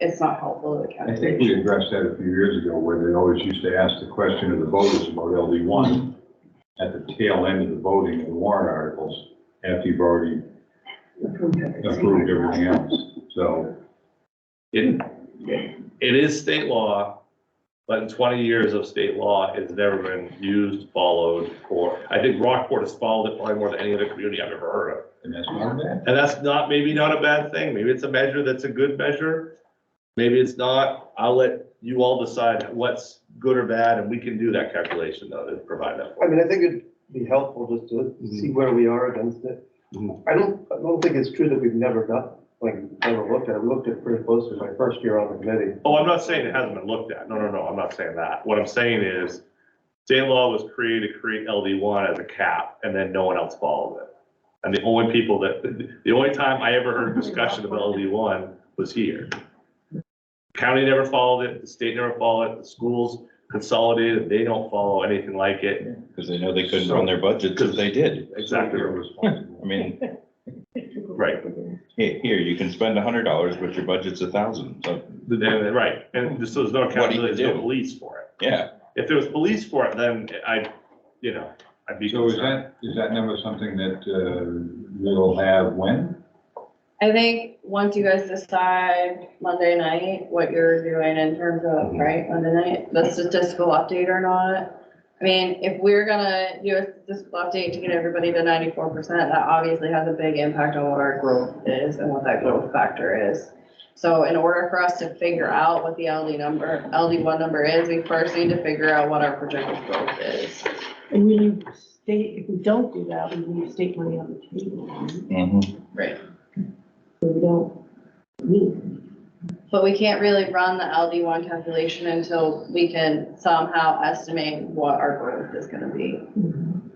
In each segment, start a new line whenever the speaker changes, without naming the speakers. it's not helpful to the
I
county.
think we addressed that a few years ago, where they always used to ask the question of the voters about LD one at the tail end of the voting of the warrant articles, after you've already approved everything else, so.
It, it is state law, but in twenty years of state law, it's never been used, followed, or, I think Rockport has followed it probably more than any other community I've ever heard of.
And that's part of that.
And that's not, maybe not a bad thing, maybe it's a measure that's a good measure, maybe it's not, I'll let you all decide what's good or bad, and we can do that calculation though, to provide that.
I mean, I think it'd be helpful just to see where we are against it.
Mhm.
I don't, I don't think it's true that we've never done, like, never looked at it. We looked at it pretty closely my first year on the committee.
Oh, I'm not saying it hasn't been looked at. No, no, no, I'm not saying that. What I'm saying is state law was created to create LD one as a cap and then no one else followed it. And the only people that, the only time I ever heard discussion about LD one was here. County never followed it, the state never followed it, the schools consolidated, they don't follow anything like it.
Because they know they couldn't run their budgets if they did.
Exactly.
They're
I
responsible.
mean,
Right.
he- here, you can spend a hundred dollars, but your budget's a thousand, so,
Then- Right, and this was no
What do you
accountability, there's
do?
no police for it.
yeah.
If there was police for it, then I, you know, I'd be
So is
concerned.
that, is that number something that, uh, we'll have when?
I think once you guys decide Monday night what you're doing in terms of,
Mhm.
right, Monday night, the statistical update or not. I mean, if we're gonna do a statistical update to get everybody to ninety-four percent, that obviously has a big impact on what our growth is and what that growth factor is. So in order for us to figure out what the LD number, LD one number is, we first need to figure out what our projected growth is.
And we leave state, if we don't do that, we leave state money on the table.
Mhm.
Right.
So we don't need.
But we can't really run the LD one calculation until we can somehow estimate what our growth is gonna be.
Mm-hmm.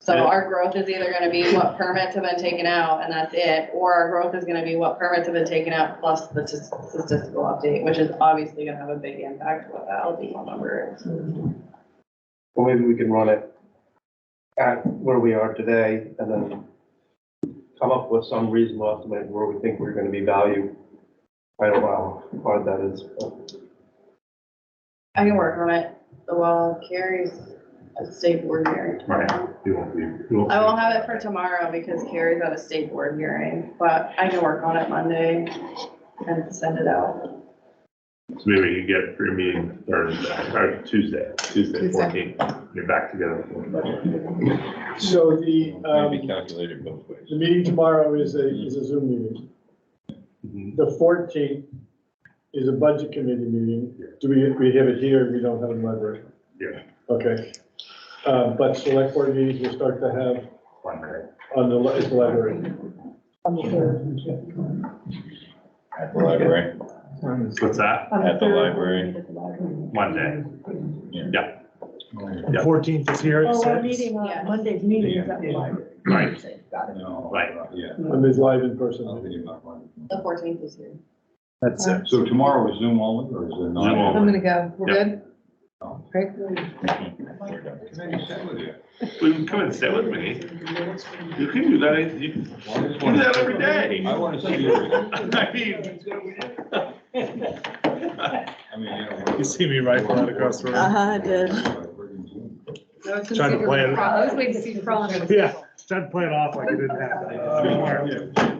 So
Yeah.
our growth is either gonna be what permits have been taken out and that's it, or our growth is gonna be what permits have been taken out plus the tis- statistical update, which is obviously gonna have a big impact what the LD one number is.
Well, maybe we can run it at where we are today and then come up with some reasonable estimate of where we think we're gonna be valued. I don't know how hard that is.
I can work on it, while Carrie's at state board hearing.
Right.
It won't be-
I won't have it for tomorrow because Carrie's at a state board hearing, but I can work on it Monday and send it out.
So maybe we can get your meeting Thursday, or uh, Tuesday, Tuesday fourteenth, you're back together.
Mm-hmm.
So the,
Maybe
um,
calculated both ways.
the meeting tomorrow is a, is a Zoom meeting.
Mhm.
The fourteenth is a budget committee meeting. Do we, we have it here? We don't have it in library?
Yeah.
Okay. Uh, but select board meetings we'll start to have
One minute.
on the, li- at the library.
On the third.
At the library,
What's that?
on
At the
third,
library.
meet At the library.
Monday.
Oh,
Fourteenth is here at
Oh,
six.
our meeting
Yeah.
on Monday's meeting is at the library.
Right.
Got it.
no,
Right.
Yeah.
And there's live in
I'll
person.
be in my mind.
The fourteenth is here.
That's it.
So tomorrow is Zoom only, or is it not?
Zoom only.
I'm gonna go. We're
Yeah.
good?
Oh.
Great.
We're done.
Can I just sit with you?
Well, you can come and sit with me. You can do that, any- you can
Well, I just
do
wanna-
that every day.
I want to see you.
I mean.
I mean, you know.
You see me right from across the room,
Uh-huh, I did.
Trying to plan.
I was waiting to see you crawl under the
Yeah.
table.
Uh, trying to play it off like it didn't happen.